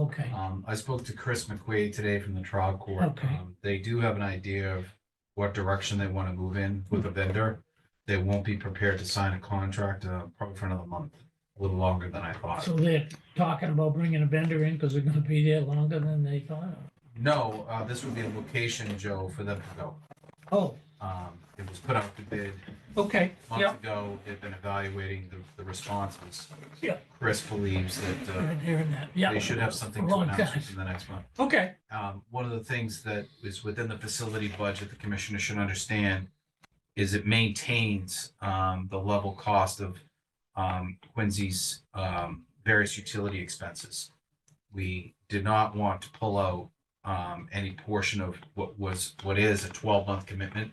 Okay, Um, I spoke to Chris McQuaid today from the trial court. Okay. Um, They do have an idea of what direction they want to move in with a vendor. They won't be prepared to sign a contract, uh, probably for another month, a little longer than I thought. so they're talking about bringing a vendor in because they're gonna be there longer than they thought. No, uh, this would be a location, Joe, for them to go. Oh, Um, it was put out to bid okay, yeah. months ago. They've been evaluating the, the responses. Yeah. Chris believes that, uh, Right here and that, yeah. they should have something to Long announce time. within the next month. Okay, um, one of the things that is within the facility budget, the commissioner should understand is it maintains, um, the level cost of, um, Quincy's, um, various utility expenses. We did not want to pull out, um, any portion of what was, what is a twelve-month commitment.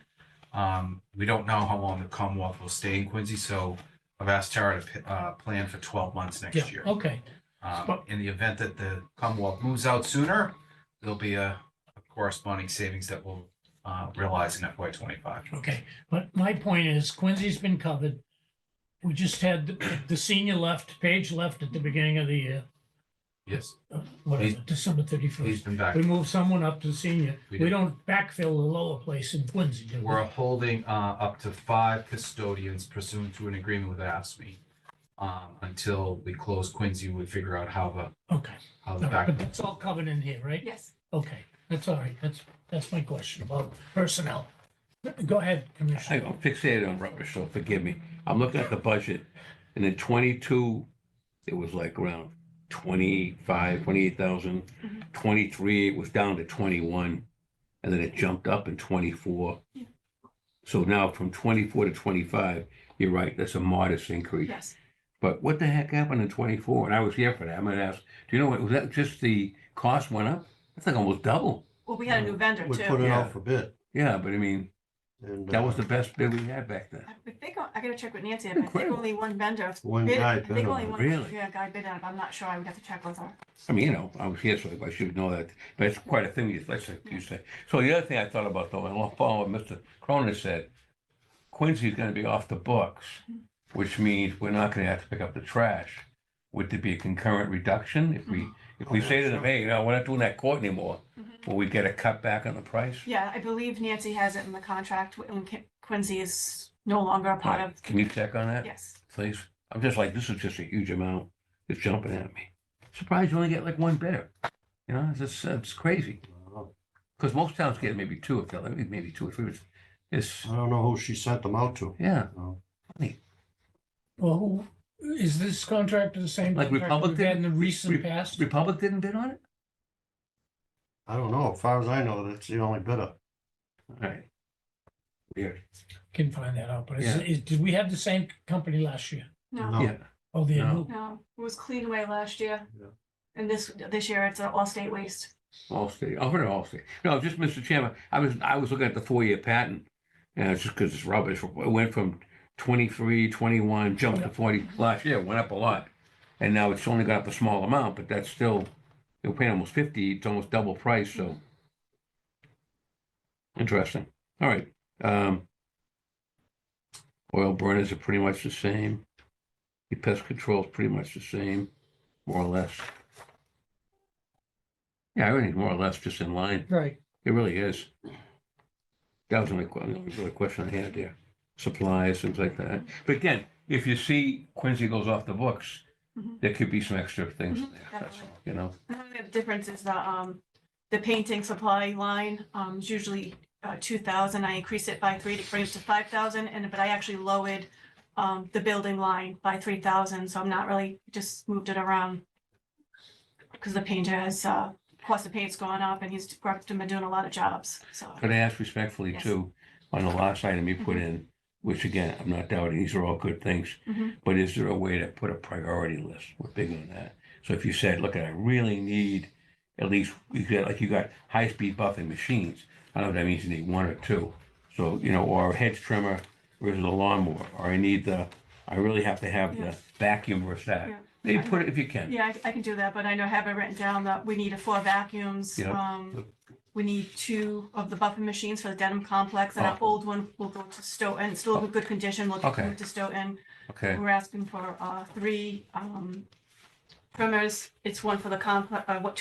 Um, we don't know how long the Commonwealth will stay in Quincy, so I've asked Tara to, uh, plan for twelve months yeah, next year. okay, Um, But- in the event that the Commonwealth moves out sooner, there'll be a a corresponding savings that we'll uh, realize in FY twenty-five. okay. But my point is Quincy's been covered. We just had the- the senior left, Page left at the beginning of the year, Yes, uh, whatever, December he's thirty-first. been back. We moved someone up to senior. We We did. don't backfill the lower place in Quincy, do we? We're holding uh, up to five custodians pursuant to an agreement with ASME um, until we close Quincy, we figure out how the, Okay, how the all right, back. but that's all covered in here, right? Yes. Okay, that's all right. That's, that's my question about personnel. Go ahead, I Commissioner. got fixated on rubbish, so forgive me. I'm looking at the budget, and in twenty-two, it was like around twenty-five, twenty-eight thousand. Mhm. Twenty-three, it was down to twenty-one, and then it jumped up in twenty-four. Yeah. So now from twenty-four to twenty-five, you're right, that's a modest increase. Yes. But what the heck happened in twenty-four? And I was here for that. I'm gonna ask, do you know what, was that just the cost went up? That's like almost double. Well, we had a new vendor Uh, We put too. it Yeah. out for bid. Yeah, but I mean, and, that was uh, the best bid we had back then. I think, I gotta check with Nancy, but I think Incredible. only one vendor. One bid- guy I bid think on only it. one. Really? Yeah, guy bid on it, but I'm not sure, I would have to check with her. I mean, you know, I was here, so I should know that, but it's quite a thing, you- that's what you say. So the other thing I thought about though, and I'll follow what Mr. Cronin said, Quincy's gonna be off the books, which means we're not gonna have to pick up the trash. Would there be a concurrent reduction if we, Mm-hmm. if Oh, we say to them, hey, no, we're not doing that court anymore? Mhm. Will we get a cut back on the price? Yeah, I believe Nancy has it in the contract when Qu- Quincy is no longer a part of, Can you check on that, yes. please? I'm just like, this is just a huge amount, it's jumping at me. Surprised you only get like one bidder, you know, it's, just- it's crazy. Because most towns get maybe two if they're maybe two or three. It's, it's I don't know who she sent them out to. yeah, No. Well, who, is this contractor the same? Like contractor we've had In the recent Re- past? Republic didn't bid on it. I don't know. As far as I know, that's the only bidder. All right. Weird. Can find that out, but is, Yeah. is, did we have the same company last year? No, No. Yeah. Oh, the No. new, no, it was Cleanway last year. Yeah. And this, this year it's an all-state waste. Allstate. I've heard of Allstate. No, just Mr. Chairman. I was I was looking at the four year patent, and it's just because it's rubbish. It went from 23, 21, jumped to forty last year. Went up a lot, and now it's only got up a small amount, but that's still you're paying almost fifty. It's almost double price. So interesting. All right. Um, oil burners are pretty much the same. The pest control is pretty much the same, more or less. Yeah, everything's more or less just in line. right, It really is. That was my que- that was really a question I had there. Supplies, things like that. But again, if you see Quincy goes off the books, Mhm. there could be some extra things Mhm, there, that's definitely. all, you know? Another difference is the, um, the painting supply line, um, is usually, uh, two thousand, I increased it by three to bring it to five thousand, and, but I actually lowered, um, the building line by three thousand, so I'm not really, just moved it around. Because the painter has, uh, cost of paint's gone up, and he's worked, been doing a lot of jobs, so. Could I ask respectfully Yes. Mm-hmm. too, on the last item you put in, which again, I'm not doubting, these are all good things. Mhm. But is there a way to put a priority list? We're big on that. So if you said, look, I really need at least, you get, like you got high-speed buffing machines. I don't know if that means you need one or two. So, you know, or a hedge trimmer versus a lawnmower, or I need the, I really have to have Yeah. the vacuum versus that. Yeah. Maybe put it if you can. Yeah, I, I can do that, but I know, I have it written down that we need a four vacuums. Yep. Um, we need two of the buffing machines for the denim complex, and our Oh. old one will go to Stoughton, it's still in good condition, we'll Okay. move to Stoughton. Okay, We're asking for, uh, three, um, trimmers, it's one for the complex, uh, what,